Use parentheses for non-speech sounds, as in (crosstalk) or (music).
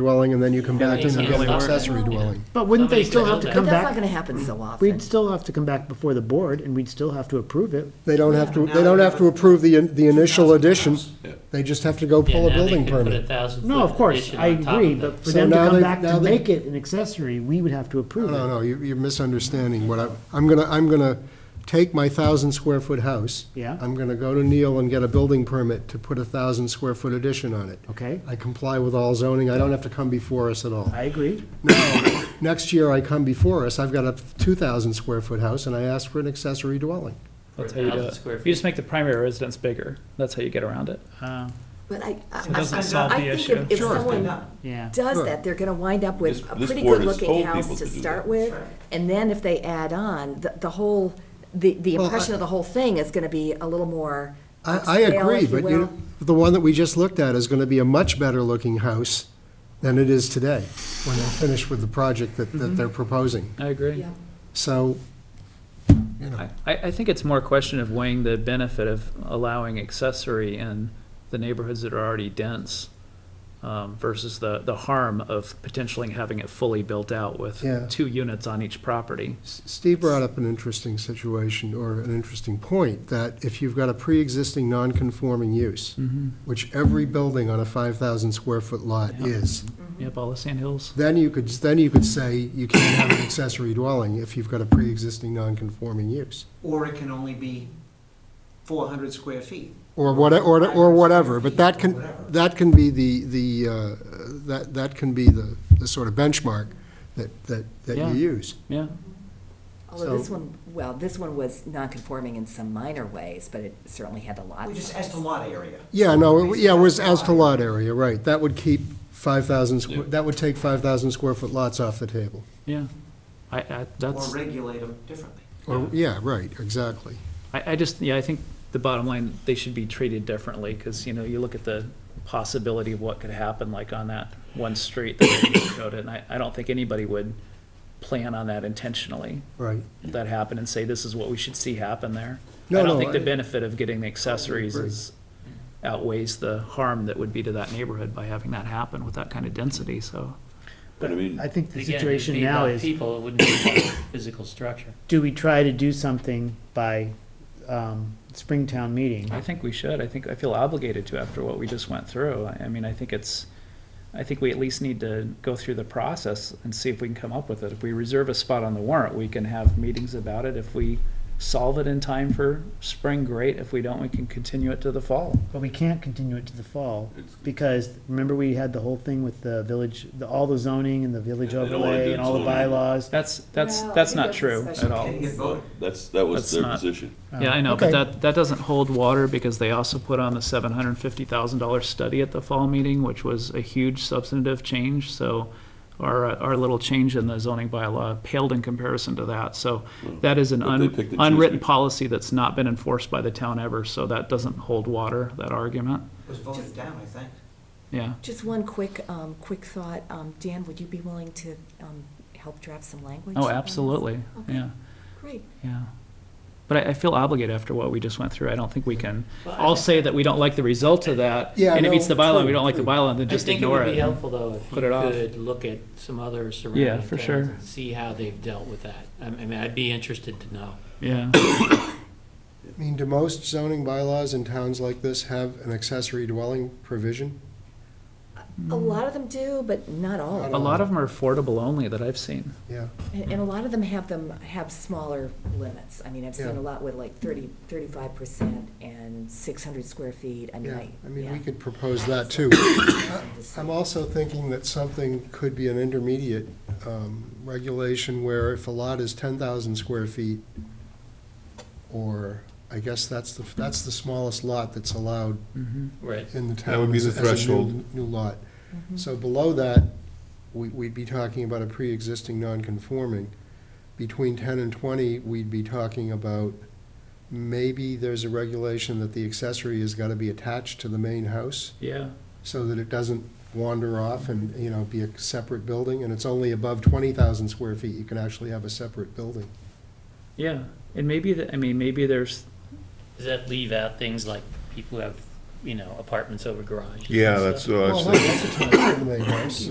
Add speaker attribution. Speaker 1: dwelling, and then you come back to
Speaker 2: doesn't
Speaker 1: the
Speaker 2: really work.
Speaker 1: accessory dwelling.
Speaker 3: But wouldn't they still have to
Speaker 2: But
Speaker 3: come
Speaker 4: But that's not
Speaker 3: back?
Speaker 4: gonna happen so often.
Speaker 3: We'd still have to come back before the board, and we'd still have to approve it.
Speaker 1: They don't have to, they don't have to approve the, the initial addition, they just have to go
Speaker 2: Yeah,
Speaker 1: pull a
Speaker 2: now they
Speaker 1: building
Speaker 2: could put
Speaker 1: permit.
Speaker 2: thousand
Speaker 3: No, of
Speaker 2: foot
Speaker 3: course,
Speaker 2: addition
Speaker 3: I
Speaker 2: on top
Speaker 3: agree,
Speaker 2: of it.
Speaker 3: but for
Speaker 1: So
Speaker 3: them to
Speaker 1: now
Speaker 3: come
Speaker 1: they-
Speaker 3: back
Speaker 1: now
Speaker 3: to
Speaker 1: they-
Speaker 3: make it an accessory, we would have to approve
Speaker 1: No,
Speaker 3: it.
Speaker 1: no, you- you're misunderstanding what I, I'm gonna, I'm gonna take my thousand square foot house.
Speaker 3: Yeah.
Speaker 1: I'm gonna go to Neil and get a building permit to put a thousand square foot addition on it.
Speaker 3: Okay,
Speaker 1: I comply with all zoning, I don't have to come before us at all.
Speaker 3: I agree.
Speaker 1: Now, next year I come before us, I've got a two thousand square foot house, and I ask for an accessory dwelling.
Speaker 5: That's how you do
Speaker 2: 1,000
Speaker 5: it.
Speaker 2: square
Speaker 5: You just
Speaker 2: feet.
Speaker 5: make the primary residence bigger. That's how you get around it.
Speaker 3: Uh,
Speaker 4: But I, I,
Speaker 5: It doesn't
Speaker 4: I-
Speaker 5: solve
Speaker 4: I
Speaker 5: the
Speaker 4: think
Speaker 5: issue.
Speaker 4: if- if
Speaker 1: Sure.
Speaker 4: someone
Speaker 3: Yeah,
Speaker 4: does
Speaker 1: Sure.
Speaker 4: that, they're gonna wind up with
Speaker 6: This-
Speaker 4: a
Speaker 6: this
Speaker 4: pretty
Speaker 6: board has
Speaker 4: good-looking
Speaker 6: told
Speaker 4: house
Speaker 6: people
Speaker 4: to
Speaker 6: to do
Speaker 4: start
Speaker 6: that.
Speaker 4: with, and then if they add on, the, the whole, the, the
Speaker 1: Well,
Speaker 4: impression
Speaker 1: I-
Speaker 4: of the whole thing is gonna be a little more
Speaker 1: I, I
Speaker 4: upscale,
Speaker 1: agree,
Speaker 4: if
Speaker 1: but you,
Speaker 4: will.
Speaker 1: the one that we just looked at is gonna be a much better looking house than it is today, when they're finished with the project that, that they're proposing.
Speaker 5: I agree.
Speaker 4: Yeah.
Speaker 1: So,
Speaker 5: I, I I think it's more a question of weighing the benefit of allowing accessory in the neighborhoods that are already dense um, versus the, the harm of potentially having it fully built out with
Speaker 1: Yeah.
Speaker 5: two units on each property.
Speaker 1: S- Steve brought up an interesting situation, or an interesting point, that if you've got a pre-existing non-conforming use,
Speaker 5: Mm-hmm.
Speaker 1: which every building on a five thousand square foot lot
Speaker 5: Yeah.
Speaker 1: is,
Speaker 5: Yep, all the sand hills.
Speaker 1: then you could, then you could say you can't have an accessory dwelling if you've got a pre-existing non-conforming use.
Speaker 7: Or it can only be four hundred square feet.
Speaker 1: Or what, or, or whatever, but that can,
Speaker 7: Whatever.
Speaker 1: that can be the, the, uh, that, that can be the, the sort of benchmark that, that, that you
Speaker 5: Yeah.
Speaker 1: use.
Speaker 5: Yeah,
Speaker 4: Although this
Speaker 1: So-
Speaker 4: one, oh, well, this one was non-conforming in some minor ways, but it certainly had a lot.
Speaker 7: We just asked a lot area.
Speaker 1: Yeah, no, it- yeah, it was as to lot area, right, that would keep five thousand, that would take five thousand square foot lots off the table.
Speaker 5: yeah. I, I,
Speaker 7: Or
Speaker 5: that's,
Speaker 7: regulate them differently.
Speaker 1: Or, yeah, right, exactly.
Speaker 5: I, I just, yeah, I think the bottom line, they should be treated differently because, you know, you look at the possibility of what could happen like on that one street that we showed it. And I, I don't think anybody would plan on that intentionally.
Speaker 1: Right.
Speaker 5: if that happen and say, this is what we should see happen there.
Speaker 1: No,
Speaker 5: I
Speaker 1: no,
Speaker 5: don't think the
Speaker 1: I-
Speaker 5: benefit of getting the accessories
Speaker 1: agree.
Speaker 5: is outweighs the harm that would be to that neighborhood by having that happen with that kind of density, so.
Speaker 6: But I mean,
Speaker 3: I think the
Speaker 2: Again, it'd
Speaker 3: situation
Speaker 2: be
Speaker 3: now
Speaker 2: about
Speaker 3: is.
Speaker 2: People, it wouldn't be
Speaker 5: (coughs)
Speaker 2: about physical structure.
Speaker 3: do we try to do something by um, Springtown meeting?
Speaker 5: I think we should. I think, I feel obligated to after what we just went through. I, I mean, I think it's, I think we at least need to go through the process and see if we can come up with it. If we reserve a spot on the warrant, we can have meetings about it. If we solve it in time for spring, great. If we don't, we can continue it to the fall.
Speaker 3: But we can't continue it to the fall,
Speaker 6: It's-
Speaker 3: because remember we had the whole thing with the village, the, all the zoning and the village
Speaker 6: Yeah, they don't wanna
Speaker 3: overlay
Speaker 6: do
Speaker 3: and all the
Speaker 6: zoning.
Speaker 3: bylaws.
Speaker 5: That's, that's,
Speaker 4: Well, I
Speaker 5: that's
Speaker 4: think
Speaker 5: not
Speaker 4: that's a
Speaker 5: true
Speaker 4: special
Speaker 5: at all.
Speaker 7: Didn't get voted.
Speaker 6: that's, that
Speaker 5: That's
Speaker 6: was their
Speaker 5: not-
Speaker 6: position.
Speaker 5: Yeah, I know, but
Speaker 3: Okay.
Speaker 5: that, that doesn't hold water because they also put on the seven hundred and fifty thousand dollar study at the fall meeting, which was a huge substantive change, so our, uh, our little change in the zoning bylaw paled in comparison to that, so that is an
Speaker 6: Hmm. But they
Speaker 5: un-
Speaker 6: picked and choose
Speaker 5: unwritten
Speaker 6: be-
Speaker 5: policy that's not been enforced by the town ever, so that doesn't hold water, that argument,
Speaker 7: It was voted down, I think.
Speaker 5: yeah.
Speaker 4: Just one quick, um, quick thought. Um, Dan, would you be willing to, um, help draft some language? on
Speaker 5: Oh,
Speaker 4: this?
Speaker 5: absolutely,
Speaker 4: Okay.
Speaker 5: yeah,
Speaker 4: Great.
Speaker 5: yeah. But I, I feel obligated after what we just went through, I don't think we can
Speaker 2: Well, I
Speaker 5: all
Speaker 2: think-
Speaker 5: say that we don't like the result of that,
Speaker 1: Yeah,
Speaker 5: and it
Speaker 1: no,
Speaker 5: meets the bylaw, we
Speaker 1: true,
Speaker 5: don't like the
Speaker 1: true.
Speaker 5: bylaw, then just ignore
Speaker 2: I think it would be
Speaker 5: it.
Speaker 2: helpful, though, if
Speaker 5: Put it off.
Speaker 2: you could look at some other surrounding
Speaker 5: Yeah,
Speaker 2: towns.
Speaker 5: for sure.
Speaker 2: and See how they've dealt with that. I I mean, I'd be interested to know.
Speaker 5: Yeah.
Speaker 1: I mean, do most zoning bylaws in towns like this have an accessory dwelling provision?
Speaker 4: A lot of them do, but not all.
Speaker 1: Not
Speaker 5: A lot of them are affordable only that I've seen.
Speaker 1: Yeah.
Speaker 4: And, and a lot of them have them, have smaller limits. I mean, I've seen
Speaker 1: Yeah.
Speaker 4: a lot with like thirty, thirty-five percent and six hundred square feet. I mean,
Speaker 1: Yeah,
Speaker 4: I.
Speaker 1: I mean, we
Speaker 4: yeah.
Speaker 1: could propose that too.
Speaker 4: (coughs)
Speaker 1: I'm also thinking that something could be an intermediate um, regulation where if a lot is ten thousand square feet, or, I guess that's the, that's the smallest lot that's allowed
Speaker 2: Right.
Speaker 1: in the town.
Speaker 8: That would be the
Speaker 1: as a new-
Speaker 8: threshold.
Speaker 1: New lot. So below that, we, we'd be talking about a pre-existing non-conforming. Between ten and twenty, we'd be talking about, maybe there's a regulation that the accessory has gotta be attached to the main house,
Speaker 5: Yeah.
Speaker 1: so that it doesn't wander off and, you know, be a separate building, and it's only above twenty thousand square feet, you can actually have a separate building.
Speaker 5: Yeah. And maybe, the- I mean, maybe there's,
Speaker 2: Does that leave out things like people who have, you know, apartments over garages? and
Speaker 8: Yeah,
Speaker 2: stuff?
Speaker 8: that's what I was
Speaker 1: Well,
Speaker 8: thinking.
Speaker 1: that's attached to the main house.